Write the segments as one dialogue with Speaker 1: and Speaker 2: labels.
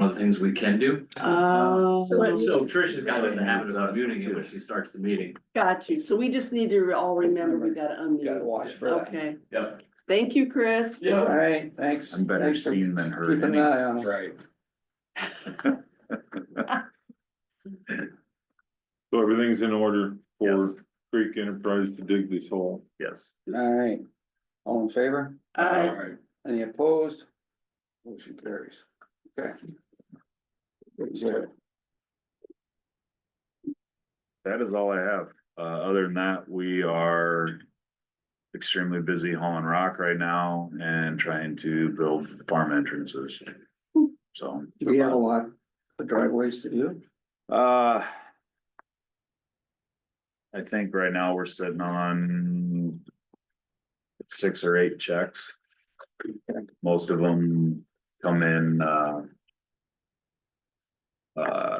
Speaker 1: of the things we can do.
Speaker 2: Oh.
Speaker 3: So-
Speaker 1: So Trish has gotten in the habit of unmuting it when she starts the meeting.
Speaker 2: Got you. So we just need to all remember we gotta
Speaker 3: Gotta
Speaker 2: unmute.
Speaker 3: watch for that.
Speaker 2: Okay.
Speaker 1: Yep.
Speaker 2: Thank you, Chris.
Speaker 1: Yeah.
Speaker 3: All right, thanks.
Speaker 4: I'm better
Speaker 3: Thanks for
Speaker 4: seen than
Speaker 3: Keep
Speaker 4: heard.
Speaker 3: an
Speaker 4: any-
Speaker 3: eye on it.
Speaker 4: Right.
Speaker 5: So everything's in order for
Speaker 1: Yes,
Speaker 5: Creek Enterprise to dig this hole.
Speaker 1: yes.
Speaker 3: All right. All in favor?
Speaker 2: Uh,
Speaker 3: right. Any opposed? Motion carries. Okay. Zero.
Speaker 4: That is all I have. Uh, other than that, we are extremely busy hauling rock right now and trying to build farm entrances. So,
Speaker 3: Do we have a lot of driveways to do?
Speaker 4: uh, I think right now we're sitting on six or eight checks. Most of them come in, uh, uh,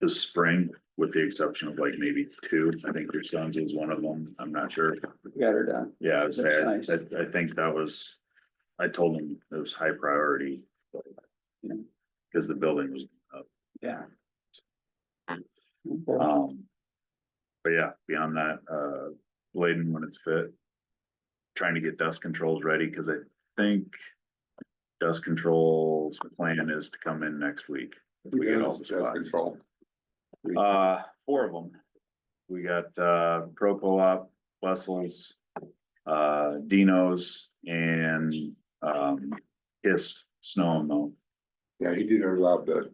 Speaker 4: the spring, with the exception of like maybe two. I think your son's was one of them. I'm not sure.
Speaker 3: We Got her done.
Speaker 4: Yeah, I was
Speaker 3: That's
Speaker 4: there. I,
Speaker 3: nice.
Speaker 4: I think that was, I told him it was high priority.
Speaker 3: Yeah.
Speaker 4: Cause the building was,
Speaker 3: Yeah. Uh,
Speaker 4: um, but yeah, beyond that, uh, laden when it's fit. Trying to get dust controls ready, cause I think dust controls plan is to come in next week. if We get all the spots. Uh, four of them. We got, uh, Pro Co-op, Wessels, uh, Dino's and, um, Kiss Snow and Melt.
Speaker 6: Yeah, he did allow the,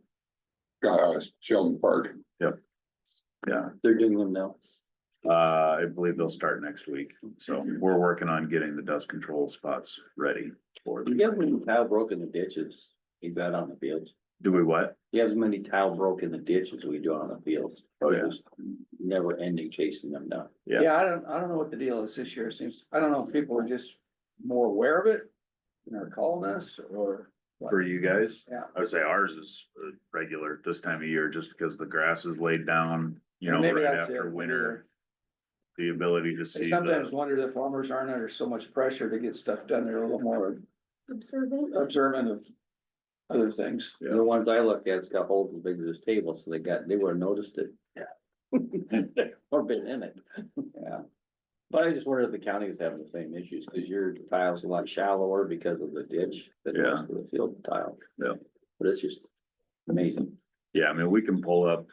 Speaker 6: uh, Sheldon Park.
Speaker 4: Yeah,
Speaker 3: They're doing them now.
Speaker 4: uh, I believe they'll start next week. So we're working on getting the dust control spots ready for
Speaker 7: You
Speaker 4: them.
Speaker 7: have many tile broke in the ditches you got on the fields.
Speaker 4: Do we what?
Speaker 7: You have as many tile broke in the ditches we do on the fields.
Speaker 4: Oh, yeah.
Speaker 7: Just Never ending chasing them down.
Speaker 4: Yeah.
Speaker 3: Yeah, I don't, I don't know what the deal is this year. It seems, I don't know if people are just more aware of it. And are calling us or. what.
Speaker 4: For you guys?
Speaker 3: Yeah.
Speaker 4: I would say ours is uh, regular at this time of year, just because the grass is laid down, you know,
Speaker 3: Maybe
Speaker 4: right
Speaker 3: that's
Speaker 4: after
Speaker 3: it.
Speaker 4: winter. The ability to
Speaker 3: I
Speaker 4: see
Speaker 3: sometimes
Speaker 4: the,
Speaker 3: wonder that farmers aren't under so much pressure to get stuff done. They're a little more observant of other things.
Speaker 7: The ones I looked at, it's got holes as big as this table, so they got, they would've noticed it. Yeah. Or been in it.
Speaker 3: Yeah.
Speaker 7: But I just wondered if the county was having the same issues, cause your tile's a lot shallower because of the ditch than the rest of the field tile.
Speaker 4: Yeah.
Speaker 7: But it's just amazing.
Speaker 4: yeah, I mean, we can pull up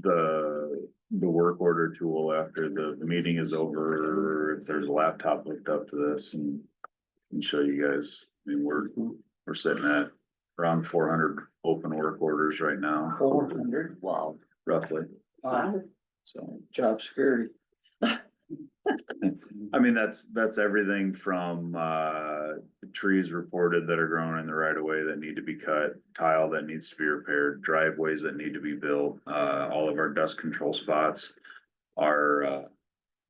Speaker 4: the, the work order tool after the the meeting is over. If there's a laptop hooked up to this and, and show you guys, I mean, we're, we're sitting at around four hundred open work orders right now,
Speaker 3: Four hundred,
Speaker 6: Wow.
Speaker 4: roughly,
Speaker 3: uh,
Speaker 4: so.
Speaker 3: job security.
Speaker 4: I mean, that's, that's everything from, uh, trees reported that are growing in the right of way that need to be cut, tile that needs to be repaired, driveways that need to be built, uh, all of our dust control spots are, uh,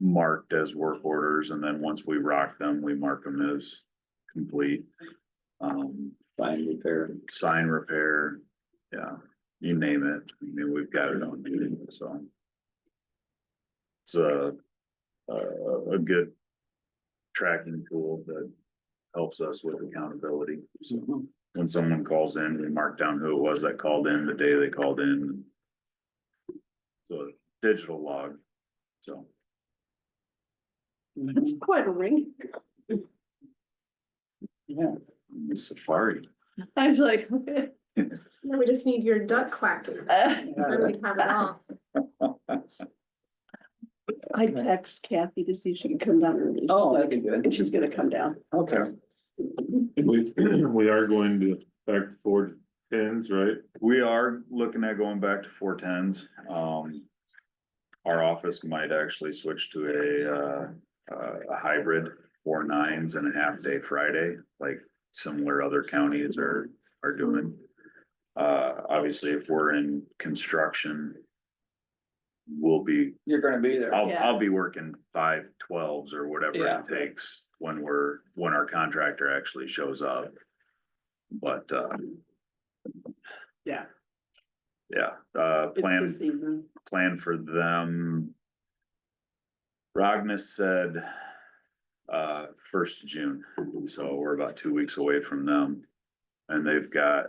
Speaker 4: marked as work orders, and then once we rock them, we mark them as complete. Um,
Speaker 7: Fine repair.
Speaker 4: sign repair, yeah, you name it, I mean, we've got it on duty, so. It's a, a, a good tracking tool that helps us with accountability. So When someone calls in, we mark down who it was that called in, the day they called in. So digital log, so.
Speaker 3: Mm-hmm.
Speaker 2: It's quite a ring.
Speaker 3: Yeah,
Speaker 4: Safari.
Speaker 2: I was like, okay.
Speaker 8: No, we just need your duck quacking.
Speaker 2: Uh,
Speaker 8: Then we have it all.
Speaker 2: I text Kathy to see if she can come down early. She's
Speaker 3: Oh,
Speaker 2: gonna-
Speaker 3: that'd be good.
Speaker 2: And she's gonna come down.
Speaker 3: okay.
Speaker 5: We, we are going to back to four tens, right?
Speaker 4: We are looking at going back to four tens, um. Our office might actually switch to a, uh, uh, a hybrid four nines and a half day Friday, like similar other counties are, are doing. Uh, obviously, if we're in construction. We'll be,
Speaker 3: You're gonna be there.
Speaker 4: I'll, I'll be working five twelves or whatever
Speaker 3: Yeah.
Speaker 4: it takes when we're, when our contractor actually shows up. But, uh,
Speaker 2: Yeah.
Speaker 4: yeah, uh,
Speaker 2: It's
Speaker 4: plan
Speaker 2: this evening.
Speaker 4: plan for them. Rognes said, uh, first June, so we're about two weeks away from them. And they've got